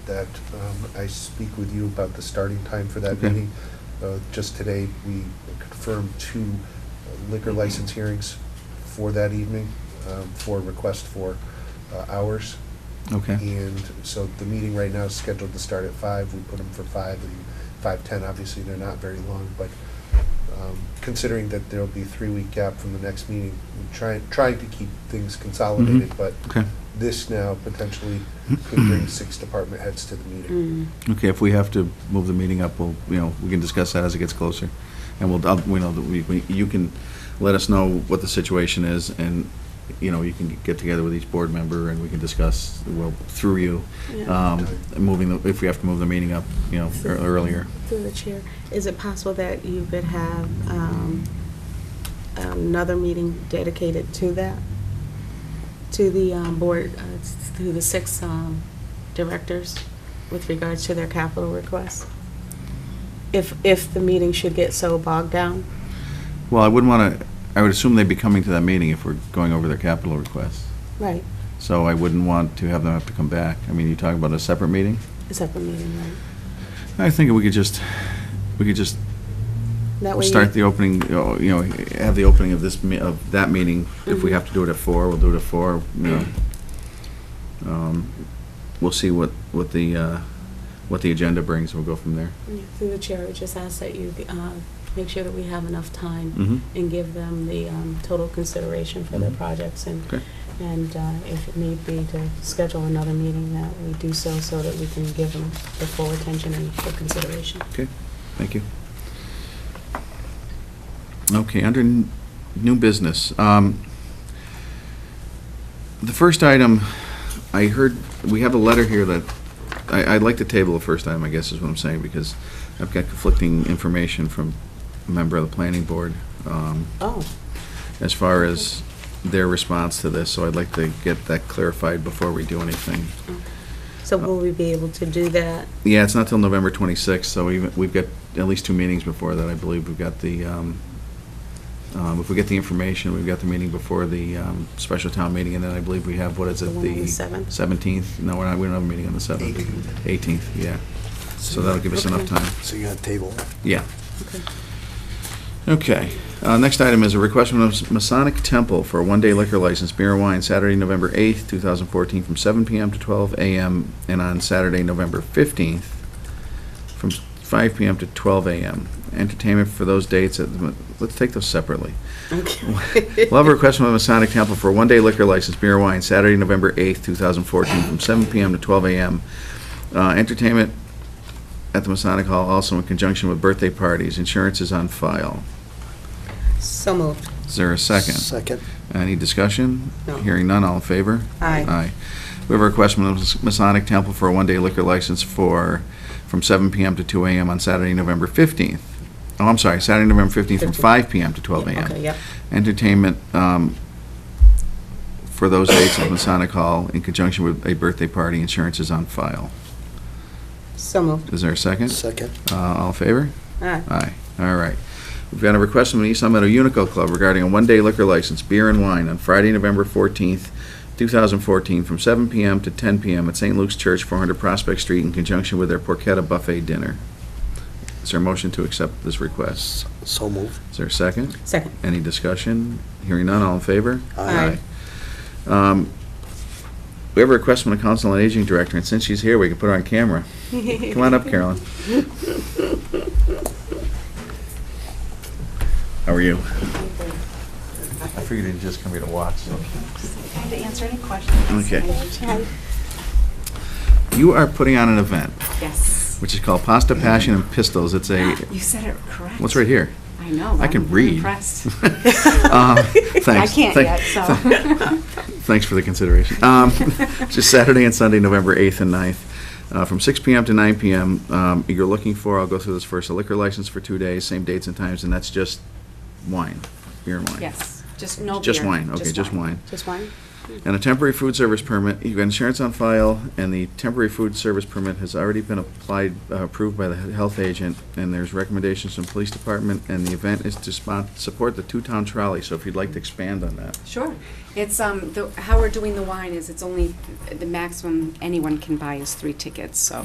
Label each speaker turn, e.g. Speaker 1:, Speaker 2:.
Speaker 1: that um, I speak with you about the starting time for that
Speaker 2: Okay.
Speaker 1: meeting. Uh, Just today, we confirmed two liquor license hearings for that evening um, for request for uh, hours.
Speaker 2: Okay,
Speaker 1: And so the meeting right now is scheduled to start at five. We put them for five and five-ten. Obviously, they're not very long, but um, considering that there'll be a three-week gap from the next meeting, we're trying, trying to keep things consolidated, but
Speaker 2: Mm-hmm. okay,
Speaker 1: this now potentially could bring six department heads to the meeting.
Speaker 3: Mm.
Speaker 2: okay, if we have to move the meeting up, we'll, you know, we can discuss that as it gets closer. And we'll, I'll- we know that we, we- you can let us know what the situation is, and, you know, you can get together with each board member, and we can discuss, well, through you,
Speaker 3: Yeah.
Speaker 2: um, moving, the if we have to move the meeting up, you know, ear- earlier.
Speaker 3: Through the chair, is it possible that you could have um, another meeting dedicated to that? To the um, board, uh, s- to the six um, directors with regards to their capital requests? If, if the meeting should get so bogged down?
Speaker 2: Well, I wouldn't want to, I would assume they'd be coming to that meeting if we're going over their capital requests.
Speaker 3: Right.
Speaker 2: So I wouldn't want to have them have to come back. I mean, you talk about a separate meeting?
Speaker 3: A separate meeting, right?
Speaker 2: I think we could just, we could just
Speaker 3: That way you-
Speaker 2: start the opening, you know- you know, have the opening of this, me- of that meeting. If we have to do it at four, we'll do it at four, you know. Um, We'll see what, what the, uh, what the agenda brings, and we'll go from there.
Speaker 3: Yeah, Through the chair, I would just ask that you uh, make sure that we have enough time
Speaker 2: Mhm.
Speaker 3: and give them the um, total consideration for their
Speaker 2: Mhm.
Speaker 3: projects and,
Speaker 2: Okay.
Speaker 3: and uh, if it need be to schedule another meeting, that we do so, so that we can give them the full attention and full consideration.
Speaker 2: Okay, thank you. Okay, under n- new business, um, the first item, I heard, we have a letter here that, I, I'd like to table the first item, I guess is what I'm saying, because I've got conflicting information from a member of the planning board, um,
Speaker 3: Oh,
Speaker 2: as far as their response to this, so I'd like to get that clarified before we do anything.
Speaker 3: so will we be able to do that?
Speaker 2: Yeah, it's not till November 26th, so we've, we've got at least two meetings before that, I believe. We've got the, um, um, if we get the information, we've got the meeting before the um, special town meeting, and then I believe we have, what is it?
Speaker 3: The one on the 7th?
Speaker 2: 17th? No, we're not, we don't have a meeting on the 7th.
Speaker 1: 18th.
Speaker 2: 18th, yeah. So that'll give us enough
Speaker 3: Okay.
Speaker 2: time.
Speaker 4: So you got a table.
Speaker 2: Yeah.
Speaker 3: Okay.
Speaker 2: Okay, uh, next item is a request from Masonic Temple for a one-day liquor license, beer and wine, Saturday, November 8th, 2014, from 7 PM to 12 AM, and on Saturday, November 15th, from 5 PM to 12 AM. Entertainment for those dates, at the- let's take those separately.
Speaker 3: Okay.
Speaker 2: We'll have a request from the Masonic Temple for a one-day liquor license, beer and wine, Saturday, November 8th, 2014, from 7 PM to 12 AM. Uh, Entertainment at the Masonic Hall, also in conjunction with birthday parties. Insurance is on file.
Speaker 3: So moved.
Speaker 2: Is there a second?
Speaker 4: Second.
Speaker 2: Any discussion?
Speaker 3: No.
Speaker 2: Hearing none, all in favor?
Speaker 3: Aye.
Speaker 2: Aye. We have a request from the Masonic Temple for a one-day liquor license for, from 7 PM to 2 AM on Saturday, November 15th. Oh, I'm sorry, Saturday, November 15th, from
Speaker 3: 15th.
Speaker 2: 5 PM to 12
Speaker 3: Yeah,
Speaker 2: AM.
Speaker 3: Okay, yep.
Speaker 2: Entertainment um, for those dates at Masonic Hall in conjunction with a birthday party. Insurance is on file.
Speaker 3: So moved.
Speaker 2: Is there a second?
Speaker 4: Second.
Speaker 2: Uh, All in favor?
Speaker 3: Aye.
Speaker 2: Aye, all right. We've got a request from the East Long Meadow Unico Club regarding a one-day liquor license, beer and wine, on Friday, November 14th, 2014, from 7 PM to 10 PM at St. Luke's Church, 400 Prospect Street, in conjunction with their Porchetta Buffet Dinner. Is there a motion to accept this request?
Speaker 4: So moved.
Speaker 2: Is there a second?
Speaker 3: Second.
Speaker 2: Any discussion? Hearing none, all in favor?
Speaker 3: Aye.
Speaker 2: Um, We have a request from the Council on Aging Director, and since she's here, we can put her on camera. Come on up, Carolyn. How are you? I figured you'd just come here to watch.
Speaker 5: Time to answer any questions.
Speaker 2: Okay. You are putting on an event,
Speaker 5: Yes. Ah,
Speaker 2: which is called Pasta Passion and Pistols. It's a,
Speaker 5: You said it correct.
Speaker 2: what's right here?
Speaker 5: I know.
Speaker 2: I can
Speaker 5: I'm
Speaker 2: read.
Speaker 5: Impressed.
Speaker 2: Um, Thanks.
Speaker 5: I can't
Speaker 2: Thank-
Speaker 5: yet, so.
Speaker 2: Thanks for the consideration. Um, Just Saturday and Sunday, November 8th and 9th, uh, from 6 PM to 9 PM. Um, You're looking for, I'll go through this first, a liquor license for two days, same dates and times, and that's just wine, beer and wine?
Speaker 5: Yes, just no beer.
Speaker 2: Just wine, okay, just wine.
Speaker 3: Just wine?
Speaker 2: And a temporary food service permit, you've got insurance on file, and the temporary food service permit has already been applied, uh, approved by the he- health agent, and there's recommendations from police department, and the event is to spon- support the two-town trolley, so if you'd like to expand on that.
Speaker 5: Sure. It's, um, the, how we're doing the wine is it's only, the maximum anyone can buy is three tickets, so